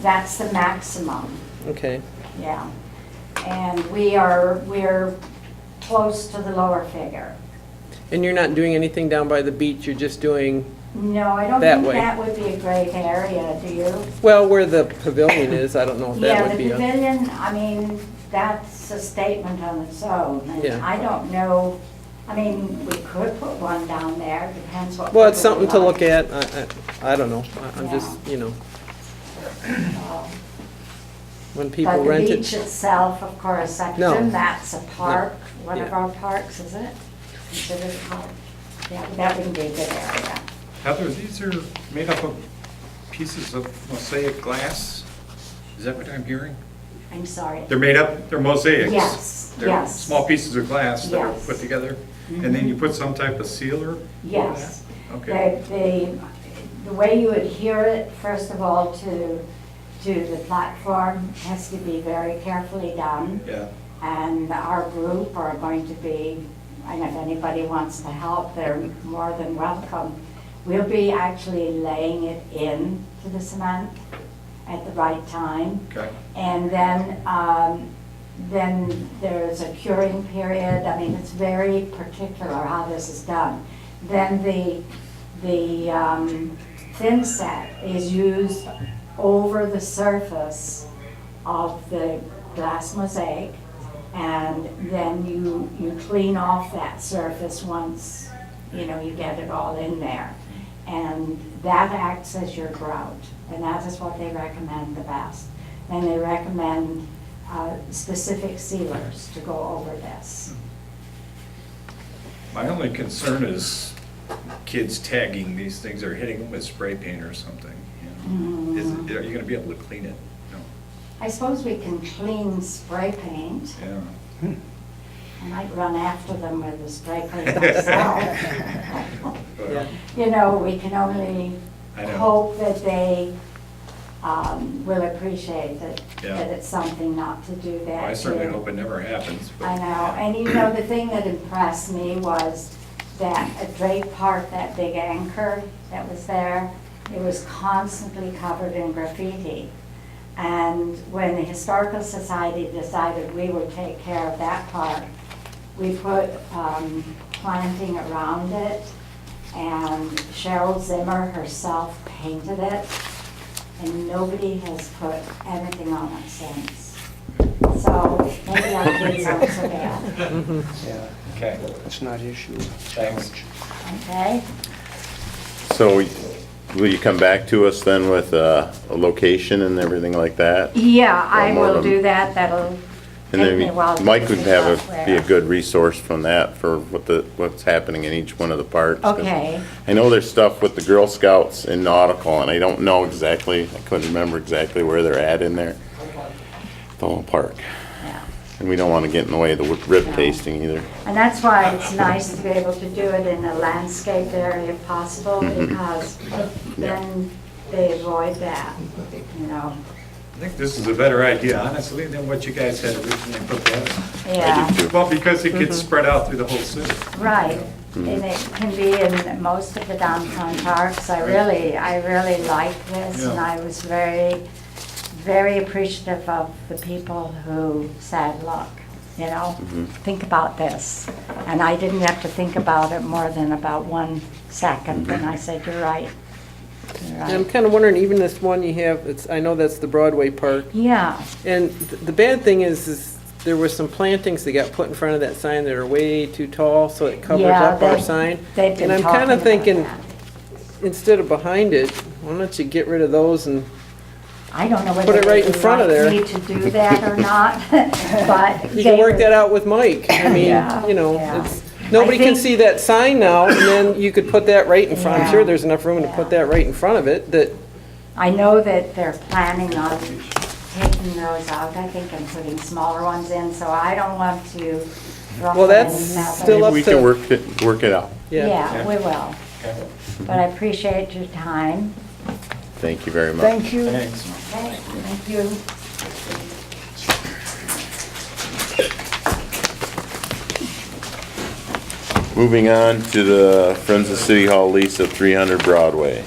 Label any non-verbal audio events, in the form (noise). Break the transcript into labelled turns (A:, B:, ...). A: That's the maximum,
B: Okay,
A: yeah. And we are, we're close to the lower figure.
B: and you're not doing anything down by the beach, you're just doing,
A: No, I don't
B: That
A: think
B: way.
A: that would be a great area, do you?
B: well, where the pavilion is, I don't know if that
A: Yeah,
B: would
A: the
B: be a...
A: pavilion, I mean, that's a statement on its own. And
B: Yeah.
A: I don't know, I mean, we could put one down there, depends what.
B: Well, it's
A: people
B: something to look
A: like.
B: at, I, I, I don't know, I- I'm just, you know,
A: Uh,
B: when people
A: But the
B: rent
A: beach
B: it.
A: itself, of course, I
B: No.
A: presume that's a park, one of
B: Yeah.
A: our parks, is it? Considered a park? Yeah, that wouldn't be a good area.
C: Heather, these are made up of pieces of mosaic glass? Is that what I'm hearing?
A: I'm sorry.
C: They're made up, they're mosaics?
A: Yes,
C: They're
A: yes.
C: Small pieces of glass that are
A: Yes. Mm-hmm.
C: put together, and then you put some type of sealer? over
A: Yes.
C: that? Okay.
A: The- The, the way you adhere it, first of all, to, to the platform has to be very carefully done.
C: Yeah,
A: And our group are going to be, and if anybody wants to help, they're more than welcome. We'll be actually laying it in to the cement at the right time.
C: okay.
A: And then, um, then there's a curing period, I mean, it's very particular how this is done. Then the, the, um, thin set is used over the surface of the glass mosaic. And then you, you clean off that surface once, you know, you get it all in there. And that acts as your grout, and that is what they recommend the best. And they recommend uh, specific sealers to go over this.
C: Mm-hmm. My only concern is kids tagging these things or hitting them with spray paint or something. you know. Is-
A: Mm.
C: Are you gonna be able to clean it? No.
A: I suppose we can clean spray paint.
C: Yeah.
A: I might run after them with the
C: (laughs)
A: spray paint myself.
B: Yeah.
C: Well,
A: You know, we can only
C: I know.
A: hope that they um, will appreciate that,
C: Yeah.
A: that it's something not to do that.
C: I certainly
A: to.
C: hope it never happens. but-
A: I know, and you know, the thing that impressed me was that at Drake Park, that big anchor that was there, it was constantly covered in graffiti. And when the Historical Society decided we would take care of that park, we put um, planting around it, and Cheryl Zimmer herself painted it, and nobody has put anything on it since. So maybe our kids aren't so bad,
D: Yeah,
C: Mm-hmm. Okay,
D: it's not issue.
C: thanks.
A: okay?
E: So will you come back to us then with uh, a location and everything like that?
A: Yeah, I
E: One more
A: will
E: of
A: do
E: them.
A: that, that'll
E: And
A: take me a while. to
E: then Mike would
A: figure
E: have,
A: out
E: a be a
A: where.
E: good resource from that for what the, what's happening in each one of the parks. 'Cause
A: Okay,
E: I know there's stuff with the Girl Scouts in Nautical, and I don't know exactly, I couldn't remember exactly where they're at in there. The whole park.
A: yeah.
E: And we don't want to get in the way of the rib
A: No.
E: tasting either.
A: And that's why it's nice to be able to do it in a landscaped area if possible,
E: Mm-hmm.
A: because then they avoid that, you know?
C: I think this is a better idea, honestly, than what you guys had originally proposed.
A: Yeah,
E: too.
C: Well, because it gets spread out through the whole city.
A: right. And it can be in most of the downtown parks. I really, I really like this, and
C: Yeah.
A: I was very, very appreciative of the people who said, look, you know, think about this. And I didn't have to think about it more than about one second, and I said, you're right. You're
B: And I'm
A: right.
B: kind of wondering, even this one you have, it's, I know that's the Broadway Park,
A: Yeah,
B: and th- the bad thing is, is there were some plantings that got put in front of that sign that are way too tall, so it covers
A: Yeah,
B: up our
A: they-
B: sign.
A: they've been
B: And I'm
A: talking
B: kind of
A: about
B: thinking,
A: that.
B: instead of behind it, why don't you get rid of those and
A: I don't know
B: Put
A: whether
B: it
A: they
B: right in
A: would
B: front of
A: like
B: there.
A: me to do that or
B: (laughs)
A: not, but.
B: You can
A: they
B: work
A: were-
B: that out with Mike. I
A: Yeah,
B: mean, you know,
A: yeah.
B: it's, nobody can
A: think-
B: see that sign now, and then you could put that right in front. I'm sure
A: Yeah,
B: there's enough room to put
A: yeah.
B: that right in front of it, that,
A: I know that they're planning on taking those out, I think, and putting smaller ones in, so I don't want to ruffle
B: Well, that's
A: any feathers.
B: Still up
E: Maybe we can
B: to-
E: work it, work it out.
B: yeah.
A: Yeah, we will. But I appreciate your time.
E: Thank you very much.
D: Thank you.
C: Thanks.
A: Okay, Thank you.
E: Moving on to the Friends of City Hall lease of 300 Broadway.